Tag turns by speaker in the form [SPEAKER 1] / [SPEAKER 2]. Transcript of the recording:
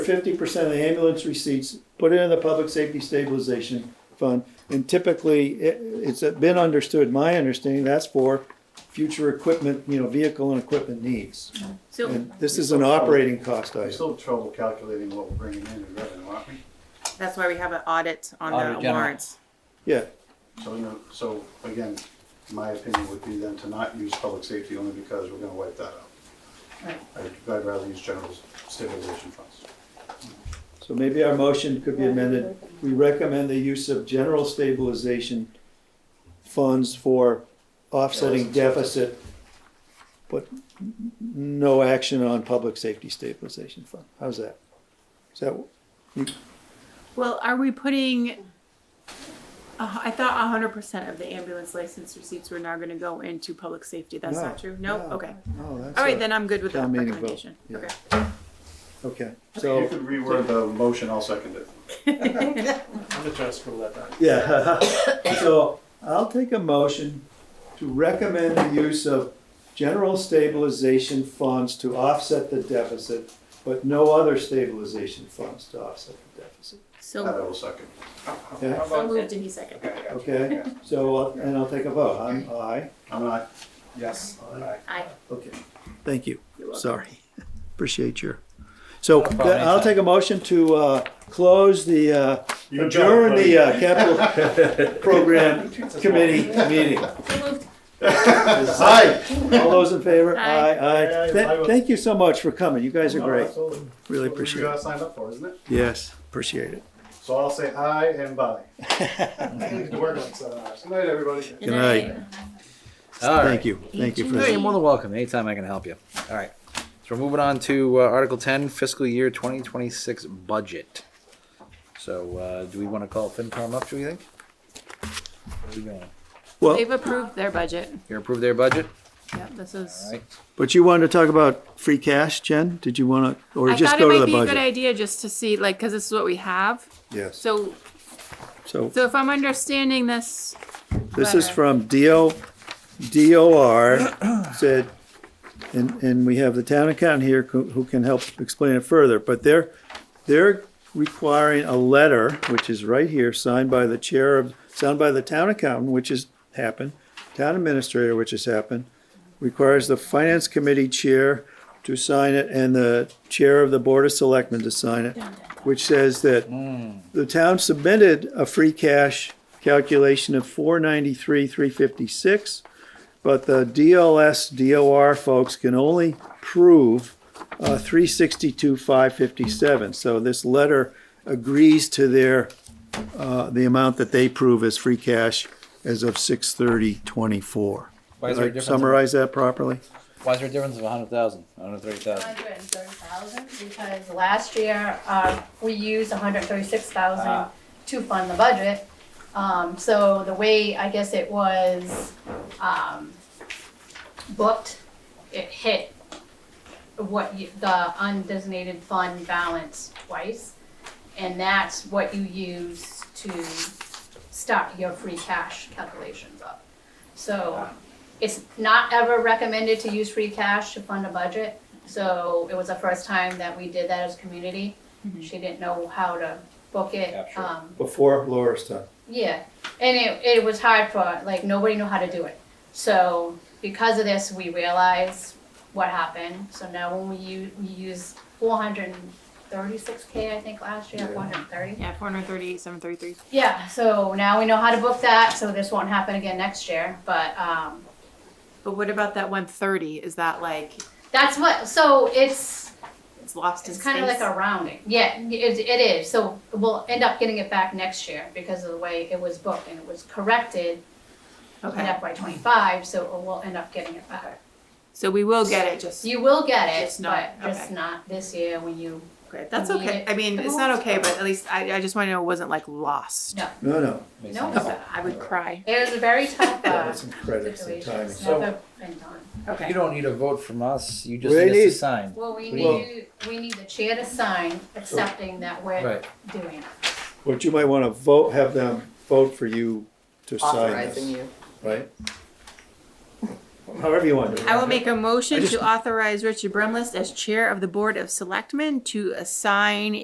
[SPEAKER 1] fifty percent of the ambulance receipts, put it in the public safety stabilization fund. And typically, it, it's been understood, my understanding, that's for future equipment, you know, vehicle and equipment needs.
[SPEAKER 2] So
[SPEAKER 1] And this is an operating cost
[SPEAKER 3] We're
[SPEAKER 1] item.
[SPEAKER 3] still trouble calculating what we're bringing in in revenue, aren't we?
[SPEAKER 2] that's why we have an audit on
[SPEAKER 4] Audit
[SPEAKER 2] the
[SPEAKER 4] general.
[SPEAKER 2] warrants.
[SPEAKER 1] Yeah,
[SPEAKER 3] So, you know, so again, my opinion would be then to not use public safety only because we're gonna wipe that out. I'd I'd rather use general stabilization funds.
[SPEAKER 1] so maybe our motion could be amended. We recommend the use of general stabilization funds for offsetting deficit, but n- no action on public safety stabilization fund. How's that? Is that?
[SPEAKER 2] Well, are we putting, uh, I thought hundred percent of the ambulance license receipts were now gonna go into public safety. That's
[SPEAKER 1] No,
[SPEAKER 2] not true? No?
[SPEAKER 1] no.
[SPEAKER 2] Okay.
[SPEAKER 1] Oh, that's
[SPEAKER 2] All
[SPEAKER 1] a-
[SPEAKER 2] right, then I'm good with that
[SPEAKER 1] town meeting vote,
[SPEAKER 2] recommendation.
[SPEAKER 1] yeah.
[SPEAKER 2] Okay.
[SPEAKER 1] Okay,
[SPEAKER 3] You
[SPEAKER 1] so,
[SPEAKER 3] could reword the motion, I'll second it.
[SPEAKER 5] I'm gonna try to scribble that down.
[SPEAKER 1] yeah, so I'll take a motion to recommend the use of general stabilization funds to offset the deficit, but no other stabilization funds to offset the deficit,
[SPEAKER 3] That
[SPEAKER 1] Uh,
[SPEAKER 2] So,
[SPEAKER 3] I will second.
[SPEAKER 1] okay?
[SPEAKER 2] so moved and he seconded.
[SPEAKER 1] Okay, so, I'll- and I'll take a vote, I'm aye.
[SPEAKER 3] I'm not,
[SPEAKER 5] Yes. Aye.
[SPEAKER 2] Aye.
[SPEAKER 1] Okay, thank you.
[SPEAKER 2] You're welcome.
[SPEAKER 1] Sorry. Appreciate your, so
[SPEAKER 4] problem,
[SPEAKER 1] th- I'll
[SPEAKER 4] anytime.
[SPEAKER 1] take a motion to uh, close the, uh,
[SPEAKER 5] You got it,
[SPEAKER 1] adjourn
[SPEAKER 5] buddy.
[SPEAKER 1] the uh, capital program committee meeting. Aye. All those in favor?
[SPEAKER 2] Aye.
[SPEAKER 1] Aye, aye.
[SPEAKER 5] Aye,
[SPEAKER 1] Tha-
[SPEAKER 5] aye.
[SPEAKER 1] Thank you so much for coming. You guys are great.
[SPEAKER 5] Absolutely.
[SPEAKER 1] Really
[SPEAKER 3] what you
[SPEAKER 1] appreciate it.
[SPEAKER 3] gotta sign up for, isn't it?
[SPEAKER 1] Yes, appreciate it.
[SPEAKER 3] So I'll say aye and bye. I need to work on some hours. Good night, everybody.
[SPEAKER 1] Good night.
[SPEAKER 4] All right.
[SPEAKER 1] Thank you. Thank you for
[SPEAKER 4] Yeah,
[SPEAKER 1] that.
[SPEAKER 4] you're more than welcome. Anytime I can help you. All right. So we're moving on to uh, Article 10, fiscal year 2026 budget. So uh, do we want to call FinCom up, do we think? Where are we going?
[SPEAKER 1] Well,
[SPEAKER 2] They've approved their budget.
[SPEAKER 4] You approved their budget?
[SPEAKER 2] Yeah, this
[SPEAKER 4] All
[SPEAKER 2] is.
[SPEAKER 4] right.
[SPEAKER 1] but you wanted to talk about free cash, Jen? Did you want to, or
[SPEAKER 2] I
[SPEAKER 1] just
[SPEAKER 2] thought
[SPEAKER 1] go
[SPEAKER 2] it
[SPEAKER 1] to
[SPEAKER 2] might
[SPEAKER 1] the
[SPEAKER 2] be a good
[SPEAKER 1] budget?
[SPEAKER 2] idea just to see, like, cause this is what we have.
[SPEAKER 1] Yes.
[SPEAKER 2] So,
[SPEAKER 1] So
[SPEAKER 2] so if I'm understanding this,
[SPEAKER 1] this is
[SPEAKER 2] letter.
[SPEAKER 1] from DO, DOR said, and, and we have the town accountant here who who can help explain it further, but they're, they're requiring a letter, which is right here, signed by the chair of, signed by the town accountant, which has happened, town administrator, which has happened, requires the finance committee chair to sign it and the chair of the board of selectmen to sign it, which says that the town submitted a free cash calculation of four ninety-three, three fifty-six, but the DLS, DOR folks can only prove uh, 362, 557. So this letter agrees to their, uh, the amount that they prove as free cash as of 6/30/24.
[SPEAKER 4] Why is there a
[SPEAKER 1] Did I
[SPEAKER 4] difference?
[SPEAKER 1] Summarize that properly?
[SPEAKER 4] Why is there a difference of 100,000, 130,000?
[SPEAKER 6] Hundred and thirty thousand, because last year, uh, we used hundred and thirty-six thousand to fund the budget. Um, so the way, I guess it was, um, booked, it hit what you, the undesignated fund balance twice. And that's what you use to start your free cash calculations up. So it's not ever recommended to use free cash to fund a budget. So it was the first time that we did that as a community. She didn't know how to book it.
[SPEAKER 4] Capture it.
[SPEAKER 6] Um,
[SPEAKER 1] Before Laura's time.
[SPEAKER 6] yeah, and it, it was hard for, like, nobody knew how to do it. So because of this, we realized what happened. So now when we use, we used four hundred and thirty-six K, I think, last year,
[SPEAKER 1] Yeah.
[SPEAKER 6] four hundred and thirty.
[SPEAKER 2] yeah, four hundred thirty-eight, seven thirty-three.
[SPEAKER 6] Yeah, so now we know how to book that, so this won't happen again next year, but, um,
[SPEAKER 2] But what about that one thirty? Is that like,
[SPEAKER 6] that's what, so it's,
[SPEAKER 2] it's lost in
[SPEAKER 6] it's
[SPEAKER 2] space?
[SPEAKER 6] kind of like a rounding. Yeah, it, it is, so we'll end up getting it back next year because of the way it was booked and it was corrected in
[SPEAKER 2] Okay,
[SPEAKER 6] FY twenty-five, so we'll end up getting it back.
[SPEAKER 2] so we will get it, just,
[SPEAKER 6] You will get it,
[SPEAKER 2] Just not-
[SPEAKER 6] but just
[SPEAKER 2] okay.
[SPEAKER 6] not this year when you,
[SPEAKER 2] okay, that's
[SPEAKER 6] Need
[SPEAKER 2] okay.
[SPEAKER 6] it.
[SPEAKER 2] I mean, it's not okay, but at least I, I just want to know it wasn't like lost.
[SPEAKER 6] No.
[SPEAKER 1] No, no,
[SPEAKER 4] Makes
[SPEAKER 6] No.
[SPEAKER 4] sense.
[SPEAKER 2] I would cry.
[SPEAKER 6] it was a very tough, uh,
[SPEAKER 1] that's incredible, the
[SPEAKER 6] situation.
[SPEAKER 1] timing.
[SPEAKER 6] It's never been done.
[SPEAKER 4] You
[SPEAKER 2] Okay.
[SPEAKER 4] don't need a vote from us. You just
[SPEAKER 1] We
[SPEAKER 4] need us
[SPEAKER 1] need-
[SPEAKER 4] to sign.
[SPEAKER 6] Well, we
[SPEAKER 1] Well-
[SPEAKER 6] need, we need the chair to sign accepting that we're
[SPEAKER 4] Right.
[SPEAKER 6] doing it.
[SPEAKER 1] But you might want to vote, have them vote for you to sign this,
[SPEAKER 7] authorizing you.
[SPEAKER 1] right? however you want to do it.
[SPEAKER 2] I will make a motion
[SPEAKER 1] I just-
[SPEAKER 2] to authorize Richard Brumlist as Chair of the Board of Selectmen to assign